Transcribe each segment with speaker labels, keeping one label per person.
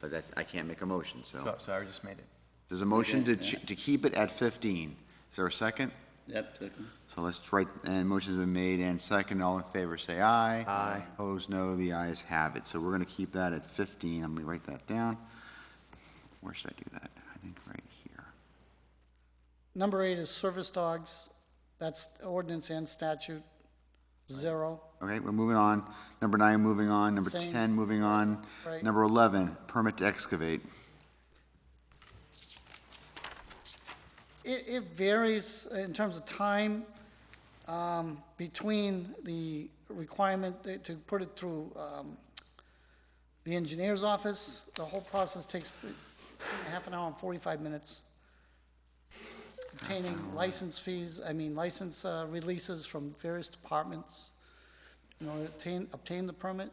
Speaker 1: but that's, I can't make a motion, so.
Speaker 2: So, sorry, I just made it.
Speaker 1: There's a motion to,
Speaker 3: did,
Speaker 1: ch-
Speaker 3: yeah.
Speaker 1: to keep it at 15. Is there a second?
Speaker 3: Yep, second.
Speaker 1: So let's write, and motion's been made and second, all in favor, say aye.
Speaker 2: Aye.
Speaker 1: Opposed, no, the ayes have it. So we're gonna keep that at fifteen, I'm gonna write that down. Where should I do that? I think right here.
Speaker 4: Number eight is service dogs. That's ordinance and statute, zero.
Speaker 1: Okay, we're moving on. Number nine, moving on. Number
Speaker 4: Same.
Speaker 1: ten, moving on.
Speaker 4: Right.
Speaker 1: Number eleven, permit to excavate.
Speaker 4: It, it varies in terms of time um, between the requirement to- to put it through um, the engineer's office. The whole process takes half an hour and 45 minutes. Obtaining license fees, I mean license uh, releases from various departments, you know, obtain, obtain the permit.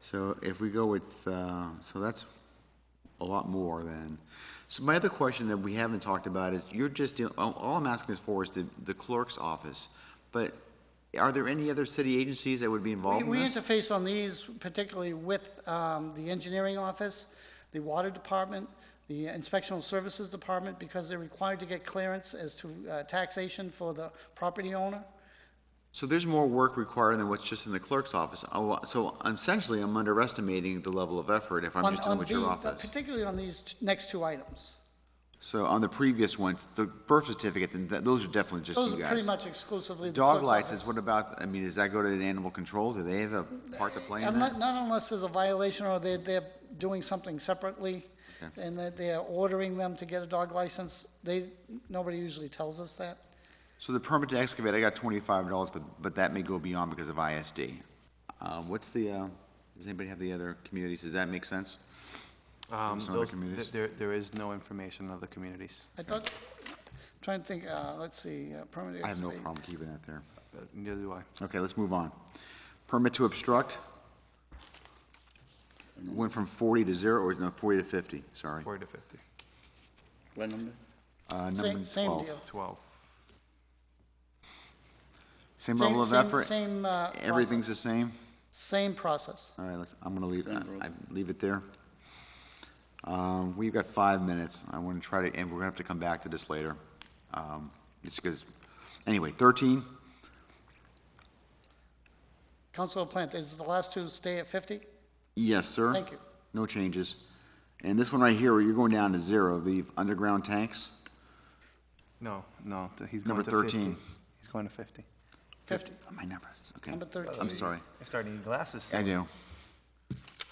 Speaker 1: So if we go with, uh, so that's a lot more than. So my other question that we haven't talked about is, you're just, deal- all all I'm asking is for is the the clerk's office. But are there any other city agencies that would be
Speaker 4: We-
Speaker 1: involved in
Speaker 4: We
Speaker 1: this?
Speaker 4: interface on these particularly with um, the engineering office, the water department, the inspectional services department, because they're required to get clearance as to uh, taxation for the property owner.
Speaker 1: So there's more work required than what's just in the clerk's office. Oh, So essentially, I'm underestimating the level of effort if I'm
Speaker 4: on-
Speaker 1: just dealing
Speaker 4: on
Speaker 1: with your
Speaker 4: the-
Speaker 1: office.
Speaker 4: Particularly on these t- next two items.
Speaker 1: So on the previous ones, the birth certificate, then th- those are definitely just
Speaker 4: Those
Speaker 1: you
Speaker 4: are pretty
Speaker 1: guys.
Speaker 4: much exclusively the
Speaker 1: Dog
Speaker 4: clerk's
Speaker 1: license,
Speaker 4: office.
Speaker 1: what about, I mean, does that go to the animal control? Do they have a part to play in
Speaker 4: Unle-
Speaker 1: that?
Speaker 4: Not unless there's a violation or they're, they're doing something separately and that they're ordering them to get a dog license. They, nobody usually tells us that.
Speaker 1: So the permit to excavate, I got twenty-five dollars, but, but that may go beyond because of ISD. Um, what's the, uh, does anybody have the other communities? Does that make sense?
Speaker 2: Um,
Speaker 1: Some other
Speaker 2: those-
Speaker 1: communities?
Speaker 2: There, there is no information on other communities.
Speaker 4: I thought, trying to think, uh, let's see, uh, permanent.
Speaker 1: I have no
Speaker 4: excavate.
Speaker 1: problem keeping that there.
Speaker 2: Uh, Neither do I.
Speaker 1: Okay, let's move on. Permit to obstruct? Went from forty to zero, or no, forty to fifty, sorry.
Speaker 2: Forty to fifty.
Speaker 3: What number?
Speaker 1: Uh, number
Speaker 4: Same, same
Speaker 1: 12.
Speaker 4: deal.
Speaker 2: Twelve.
Speaker 1: Same level of
Speaker 4: same-
Speaker 1: effort?
Speaker 4: Same, uh,
Speaker 1: Everything's
Speaker 4: process.
Speaker 1: the same?
Speaker 4: Same process.
Speaker 1: All right, let's, I'm gonna leave,
Speaker 3: Done, bro.
Speaker 1: I, I leave it there. Um, we've got five minutes, I wanna try to, and we're gonna have to come back to this later. Um, it's because, anyway, thirteen,
Speaker 4: Council Plant, is the last two stay at 50?
Speaker 1: yes, sir.
Speaker 4: Thank you.
Speaker 1: No changes. And this one right here, you're going down to zero, the underground tanks,
Speaker 2: No, no, th- he's going
Speaker 1: Number
Speaker 2: to fifty.
Speaker 1: 13.
Speaker 2: He's going to fifty.
Speaker 4: 50,
Speaker 1: Oh, my numbers, okay.
Speaker 4: number 13.
Speaker 1: I'm sorry,
Speaker 2: I started needing glasses.
Speaker 1: I do.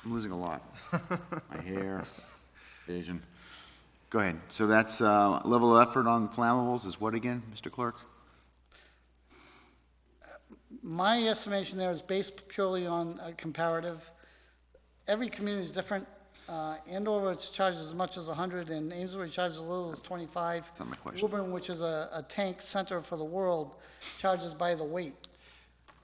Speaker 1: I'm losing a lot. My hair, vision. Go ahead, so that's, uh, level of effort on flammables is what again, Mr. Clerk?
Speaker 4: My estimation there is based purely on a comparative. Every community is different. Uh, Andover, it's charged as much as 100, and Amesbury charges as little as 25.
Speaker 1: That's not my question.
Speaker 4: Woburn, which is a, a tank center for the world, charges by the weight.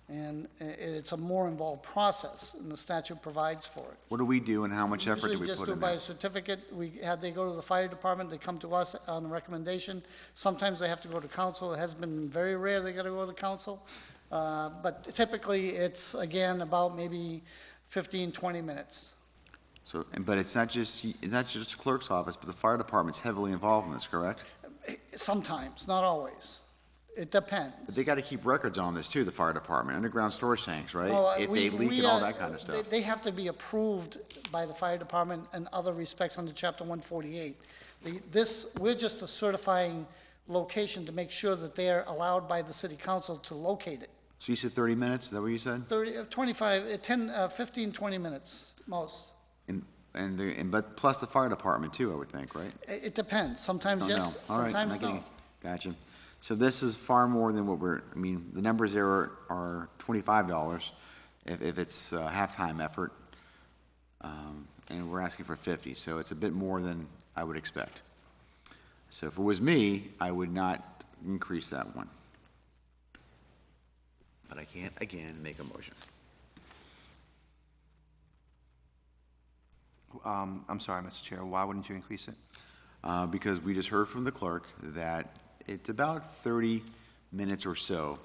Speaker 4: And i- it's a more involved process, and the statute provides for it.
Speaker 1: What do we do and how much effort do
Speaker 4: Usually
Speaker 1: we
Speaker 4: just
Speaker 1: put
Speaker 4: do
Speaker 1: in
Speaker 4: by a
Speaker 1: there?
Speaker 4: certificate, we, had they go to the fire department, they come to us on a recommendation. Sometimes they have to go to council, it has been very rare they gotta go to council. Uh, But typically, it's, again, about maybe 15, 20 minutes.
Speaker 1: So, and- but it's not just, it's not just the clerk's office, but the fire department's heavily involved in this, correct?
Speaker 4: Sometimes, not always.
Speaker 1: But
Speaker 4: It depends.
Speaker 1: they gotta keep records on this too, the fire department, underground storage tanks,
Speaker 4: Oh,
Speaker 1: right? If they
Speaker 4: we-
Speaker 1: leak
Speaker 4: we
Speaker 1: and all
Speaker 4: are-
Speaker 1: that kind of
Speaker 4: they-
Speaker 1: stuff.
Speaker 4: They have to be approved by the fire department and other respects under chapter 148. The- This, we're just a certifying location to make sure that they are allowed by the city council to locate it.
Speaker 1: So you said thirty minutes, is that what you said?
Speaker 4: 30, uh, 25, uh, 10, uh, 15, 20 minutes, most.
Speaker 1: And, and, the- and, but plus the fire department too, I would think, right?
Speaker 4: I- It depends, sometimes
Speaker 1: Don't
Speaker 4: yes,
Speaker 1: know. Oh, All right,
Speaker 4: sometimes
Speaker 1: not getting-
Speaker 4: no.
Speaker 1: Gotcha. So this is far more than what we're, I mean, the numbers there are, are twenty-five dollars if, if it's a halftime effort. Um, and we're asking for fifty, so it's a bit more than I would expect. So if it was me, I would not increase that one. But I can't, again, make a motion.
Speaker 2: Um, I'm sorry, Mr. Chair, why wouldn't you increase it?
Speaker 1: uh, because we just heard from the clerk that it's about 30 minutes or so